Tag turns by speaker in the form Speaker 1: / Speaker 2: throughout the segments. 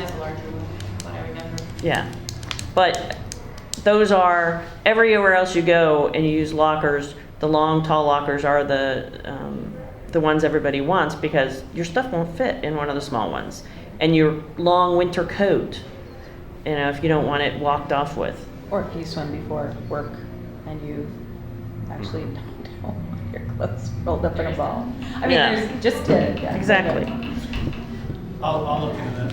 Speaker 1: have a larger room, what I remember.
Speaker 2: Yeah, but those are, everywhere else you go and you use lockers, the long, tall lockers are the, um, the ones everybody wants because your stuff won't fit in one of the small ones. And your long winter coat, you know, if you don't want it walked off with.
Speaker 3: Or if you swim before work and you actually don't want your clothes rolled up in a ball. I mean,
Speaker 2: Yeah.
Speaker 3: there's just to. yeah.
Speaker 2: Exactly.
Speaker 4: I'll, I'll look into that.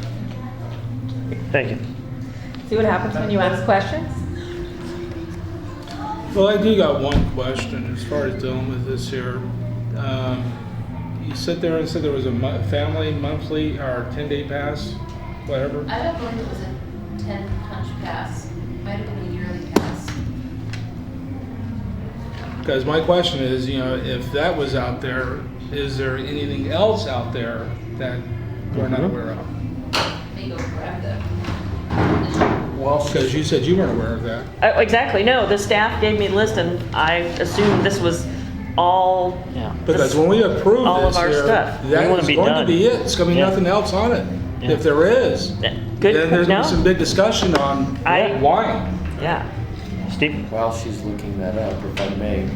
Speaker 5: Thank you.
Speaker 3: See what happens when you ask questions?
Speaker 6: Well, I do got one question as far as dealing with this here. Um, you sit there and said there was a mo- family monthly or ten day pass, whatever.
Speaker 1: I don't believe it was a ten punch pass, might have been a yearly pass.
Speaker 6: Because my question is, you know, if that was out there, is there anything else out there that we're not
Speaker 5: Mhm.
Speaker 6: aware of?
Speaker 1: They go grab the.
Speaker 6: Well, because you said you weren't aware of that.
Speaker 2: Oh, exactly, no, the staff gave me the list and I assumed this was all.
Speaker 5: Yeah.
Speaker 6: Because when we approve
Speaker 2: All of
Speaker 6: this
Speaker 2: our
Speaker 6: here,
Speaker 2: stuff.
Speaker 5: We
Speaker 6: that
Speaker 5: wanna
Speaker 6: is
Speaker 5: be
Speaker 6: going
Speaker 5: done.
Speaker 6: to be it. It's going to be
Speaker 5: Yeah.
Speaker 6: nothing else on it.
Speaker 5: Yeah.
Speaker 6: If there is,
Speaker 2: Good,
Speaker 6: then there's
Speaker 2: no,
Speaker 6: gonna be some big discussion on
Speaker 2: I-
Speaker 6: why.
Speaker 2: yeah.
Speaker 5: Steve?
Speaker 7: While she's looking that up, if I may,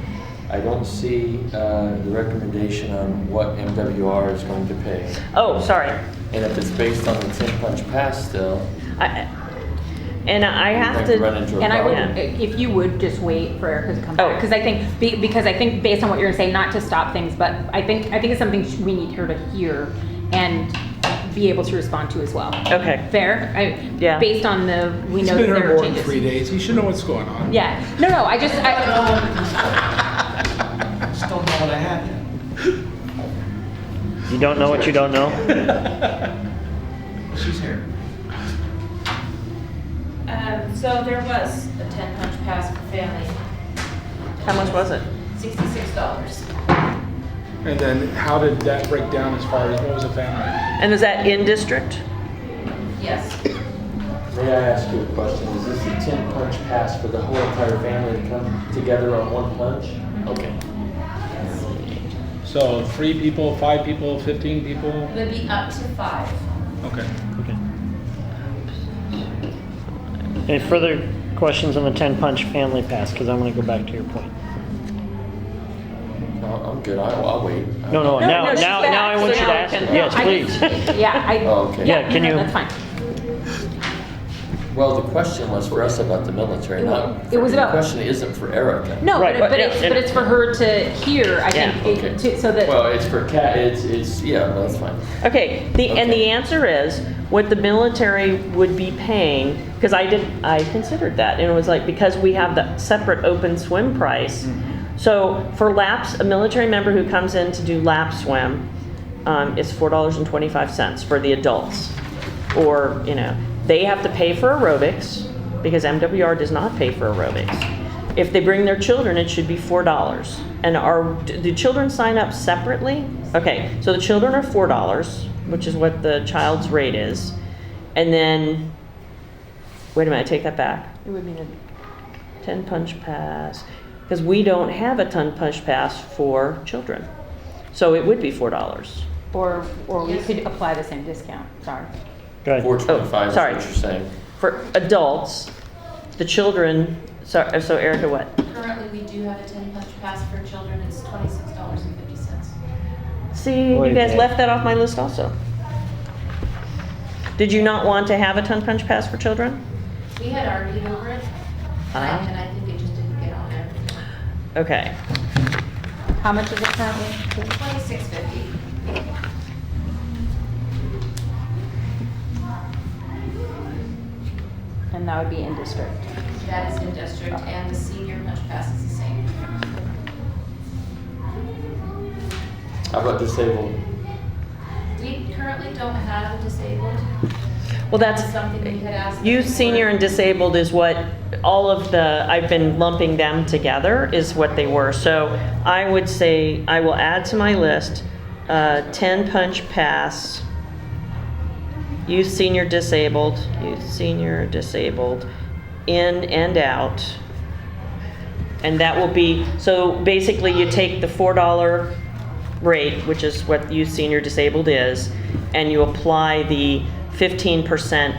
Speaker 7: I don't see uh, the recommendation on what MWR is going to pay.
Speaker 2: Oh, sorry,
Speaker 7: And if it's based on the 10 punch pass still,
Speaker 2: I, and I have
Speaker 7: Like run
Speaker 2: to,
Speaker 7: into-
Speaker 3: And I would,
Speaker 2: Yeah.
Speaker 3: if you would just wait for Erica to come
Speaker 2: Oh.
Speaker 3: back, because I think, be- because I think based on what you're gonna say, not to stop things, but I think, I think it's something sh- we need her to hear and be able to respond to as well.
Speaker 2: okay,
Speaker 3: Fair? I-
Speaker 2: Oh. Yeah.
Speaker 3: Based on the, we
Speaker 6: He's
Speaker 3: know that
Speaker 6: been
Speaker 3: there
Speaker 6: here
Speaker 3: are
Speaker 6: more than three
Speaker 3: changes.
Speaker 6: days. He should know what's going on.
Speaker 3: Yeah, no, no, I just, I,
Speaker 6: Um,
Speaker 4: Just don't know what I have yet.
Speaker 5: You don't know what you don't know?
Speaker 4: She's here.
Speaker 1: Um, so there was a ten punch pass for family.
Speaker 2: how much was it?
Speaker 1: Sixty-six dollars.
Speaker 6: And then how did that break down as far as what was a family?
Speaker 2: And is that in district?
Speaker 1: Yes,
Speaker 7: may I ask you a question? Is this a 10 punch pass for the whole entire family to come together on one punch? Okay.
Speaker 6: So three people, five people, 15 people?
Speaker 1: it would be up to five.
Speaker 6: Okay.
Speaker 5: Okay. Any further questions on the 10 punch family pass? Because I want to go back to your point.
Speaker 7: No, I'm good. I'll, I'll wait. Uh,
Speaker 5: No,
Speaker 3: No,
Speaker 5: no, Oh, now,
Speaker 3: no, she's
Speaker 5: now,
Speaker 3: back,
Speaker 5: now I
Speaker 3: so
Speaker 5: want you
Speaker 3: now
Speaker 5: to
Speaker 3: we
Speaker 5: ask.
Speaker 3: can-
Speaker 5: Yes,
Speaker 3: I
Speaker 5: please.
Speaker 3: just- yeah, I,
Speaker 7: Oh, okay.
Speaker 3: yeah,
Speaker 5: Yeah, can
Speaker 3: no,
Speaker 5: you-
Speaker 3: that's fine.
Speaker 7: Well, the question was for us about the military,
Speaker 3: It wa-
Speaker 7: not.
Speaker 3: it was
Speaker 7: for- the
Speaker 3: about-
Speaker 7: question isn't for Erica.
Speaker 3: No,
Speaker 5: Right,
Speaker 3: but,
Speaker 5: but-
Speaker 3: but it's,
Speaker 5: and-
Speaker 3: but it's for her to hear, I
Speaker 2: Yeah.
Speaker 3: think,
Speaker 7: Okay.
Speaker 3: it- to- so that.
Speaker 7: Well, it's for Cat. It's it's yeah. No, that's fine.
Speaker 2: Okay, the, and the
Speaker 7: Okay.
Speaker 2: answer is, what the military would be paying, because I did, I considered that, and it was like, because we have the separate open swim price.
Speaker 5: Mm-hmm.
Speaker 2: So for laps, a military member who comes in to do lap swim, um, is four dollars and twenty-five cents for the adults. Or, you know, they have to pay for aerobics, because MWR does not pay for aerobics. If they bring their children, it should be four dollars. And are, do the children sign up separately? Okay, so the children are four dollars, which is what the child's rate is. And then, wait a minute, I take that back. It would be the ten punch pass, because we don't have a ten punch pass for children. So it would be four dollars.
Speaker 3: Or, or we
Speaker 1: Yes.
Speaker 3: could apply the same discount, sorry.
Speaker 5: Go ahead.
Speaker 7: Four twenty-five is
Speaker 2: sorry.
Speaker 7: what you're saying.
Speaker 2: For adults, the children, so, so Erica, what?
Speaker 1: Currently, we do have a ten punch pass for children, it's twenty-six dollars and fifty cents.
Speaker 2: See, you
Speaker 5: Wait a
Speaker 2: guys
Speaker 5: minute.
Speaker 2: left that off my list also. Did you not want to have a ton punch pass for children?
Speaker 1: We had argued over it, and I,
Speaker 2: Uh-huh.
Speaker 1: and I think it just didn't get on there.
Speaker 2: Okay,
Speaker 3: How much is it currently?
Speaker 1: Twenty-six fifty.
Speaker 3: And that would be in district.
Speaker 1: That is in district, and the senior punch pass is the same.
Speaker 7: How about disabled?
Speaker 1: We currently don't have a disabled.
Speaker 2: well, that's,
Speaker 1: Something we had asked.
Speaker 2: youth,
Speaker 1: before.
Speaker 2: senior, and disabled is what, all of the, I've been lumping them together is what they were. So I would say, I will add to my list, uh, ten punch pass, youth, senior, disabled, youth, senior, disabled, in and out. And that will be, so basically you take the four dollar rate, which is what youth senior disabled is, and you apply the fifteen percent